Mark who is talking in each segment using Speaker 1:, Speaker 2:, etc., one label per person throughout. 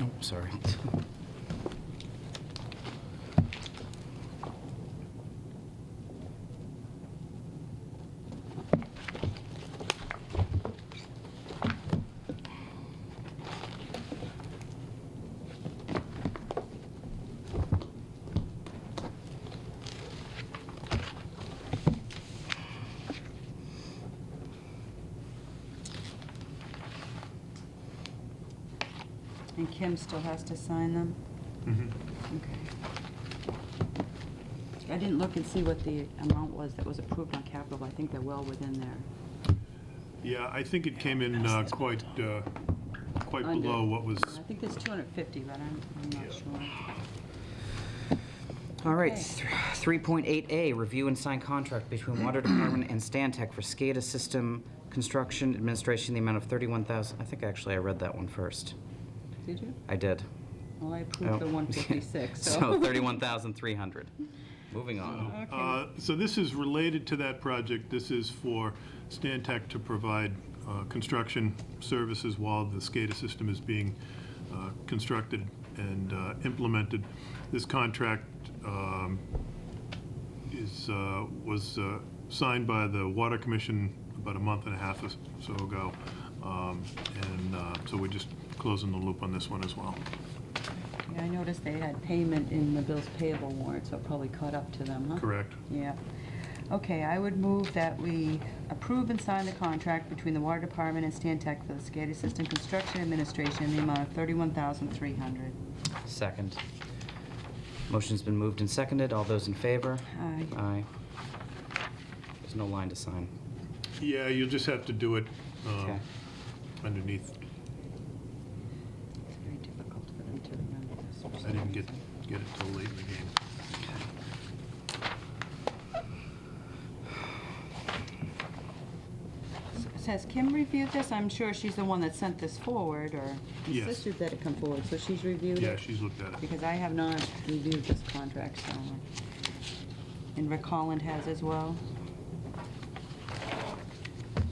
Speaker 1: I'm sorry.
Speaker 2: And Kim still has to sign them? Okay. I didn't look and see what the amount was that was approved on capital, but I think they're well within there.
Speaker 3: Yeah, I think it came in uh, quite, uh, quite
Speaker 2: Under.
Speaker 3: below what was,
Speaker 2: I think there's 250, but I'm, I'm
Speaker 3: Yeah.
Speaker 2: not sure.
Speaker 1: All right,
Speaker 2: Okay.
Speaker 1: th- 3.8A, review and sign contract between Water Department and Stantec for SCADA system construction administration, the amount of 31,000, I think actually I read that one first.
Speaker 2: Did you?
Speaker 1: I did.
Speaker 2: Well, I
Speaker 1: Oh.
Speaker 2: approved the 156, so.
Speaker 1: So 31,300. Moving on.
Speaker 2: Okay.
Speaker 3: Uh, so this is related to that project. This is for Stantec to provide uh, construction services while the SCADA system is being uh, constructed and uh, implemented. This contract um, is, uh, was uh, signed by the Water Commission about a month and a half or so ago. Um, And uh, so we're just closing the loop on this one as well.
Speaker 2: Yeah, I noticed they had payment in the bills payable warrant, so it probably caught up to them, huh?
Speaker 3: Correct?
Speaker 2: Yeah. Okay, I would move that we approve and sign the contract between the Water Department and Stantec for the SCADA system construction administration in the amount of 31300
Speaker 1: Second. Motion's been moved and seconded. All those in favor?
Speaker 2: Aye.
Speaker 1: Aye. There's no line to sign.
Speaker 3: Yeah, you'll just have to do it um,
Speaker 1: Okay.
Speaker 3: underneath.
Speaker 2: It's very difficult for them to remember this. for
Speaker 3: I
Speaker 2: some
Speaker 3: didn't get,
Speaker 2: reason.
Speaker 3: get it till late in the game.
Speaker 2: S- Has Kim reviewed this? I'm sure she's the one that sent this forward or
Speaker 3: Yes.
Speaker 2: insisted that it come forward, so she's reviewed it?
Speaker 3: Yeah, she's looked at it.
Speaker 2: Because I have not reviewed this contract, so, and Rick Holland has as well.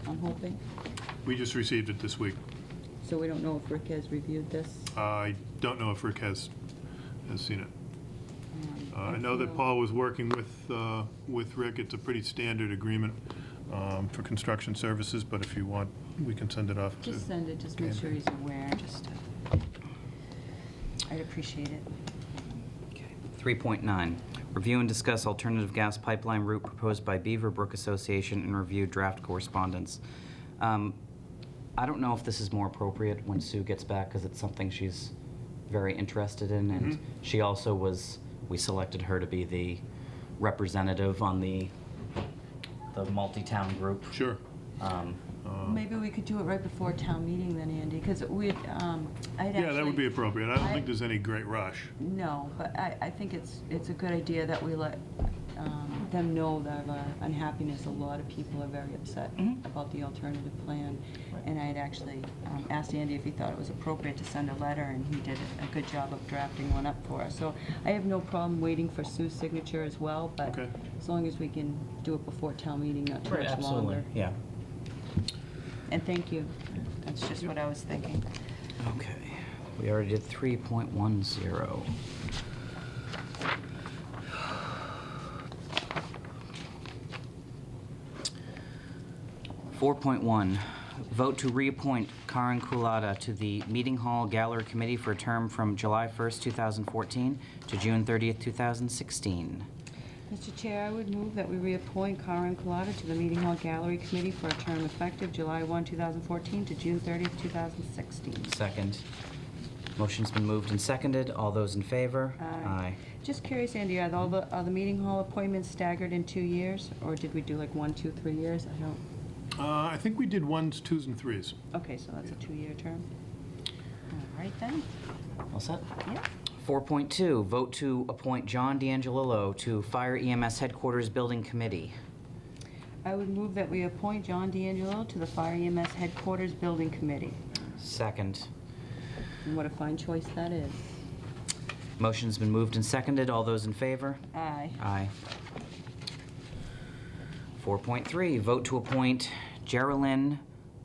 Speaker 2: I'm hoping.
Speaker 3: We just received it this week.
Speaker 2: So we don't know if Rick has reviewed this.
Speaker 3: I don't know if Rick has, has seen it.
Speaker 2: Um,
Speaker 3: Uh, I know that
Speaker 2: feel-
Speaker 3: Paul was working with, uh, with Rick. It's a pretty standard agreement um, for construction services, but if you want, we can send it off to.
Speaker 2: Just send it, just make sure he's aware, just, uh, I'd appreciate it.
Speaker 1: 3.9, review and discuss alternative gas pipeline route proposed by Beaver Brook Association and review draft correspondence. Um, I don't know if this is more appropriate when Sue gets back, because it's something she's very interested in, and she also was, we selected her to be the representative on the, the multi-town group.
Speaker 3: Sure.
Speaker 1: Um,
Speaker 3: Uh,
Speaker 2: Maybe we could do it right before town meeting then, Andy, because we'd, um, I'd actually.
Speaker 3: Yeah, that would be appropriate. I don't
Speaker 2: I-
Speaker 3: think there's any great rush.
Speaker 2: No, but I, I think it's, it's a good idea that we let um, them know that our unhappiness, a lot of people are very upset
Speaker 1: Mhm.
Speaker 2: about the alternative plan.
Speaker 1: Right.
Speaker 2: And I had actually um, asked Andy if he thought it was appropriate to send a letter, and he did a good job of drafting one up for us. So I have no problem waiting for Sue's signature as well, but
Speaker 3: Okay.
Speaker 2: as long as we can do it before town meeting, not too much longer.
Speaker 1: Yeah.
Speaker 2: And thank you. That's just what I was thinking.
Speaker 1: Okay, we already did 3.10. Four point one, vote to reappoint Karen Kulata to the Meeting Hall Gallery Committee for a term from July first, two thousand fourteen to June thirtieth, two thousand sixteen.
Speaker 2: Mr. Chair, I would move that we reappoint Karen Colada to the Meeting Hall Gallery Committee for a term effective July 1, 2014 to June 30, 2016.
Speaker 1: Second. Motion's been moved and seconded. All those in favor?
Speaker 2: Just curious, Andy, are all the, are the Meeting Hall appointments staggered in two years? Or did we do like one, two, three years? I don't,
Speaker 3: Uh, I think we did ones, twos, and threes.
Speaker 2: okay, so that's a two-year term. All right then,
Speaker 1: Aye. All set?
Speaker 2: yeah.
Speaker 1: 4.2, vote to appoint John D'Angelillo to Fire EMS Headquarters Building Committee.
Speaker 2: I would move that we appoint John D'Angelo to the Fire EMS Headquarters Building Committee.
Speaker 1: Second.
Speaker 2: And what a fine choice that is.
Speaker 1: Motion's been moved and seconded. All those in favor?
Speaker 2: Aye.
Speaker 1: Aye. 4.3, vote to appoint Geraldine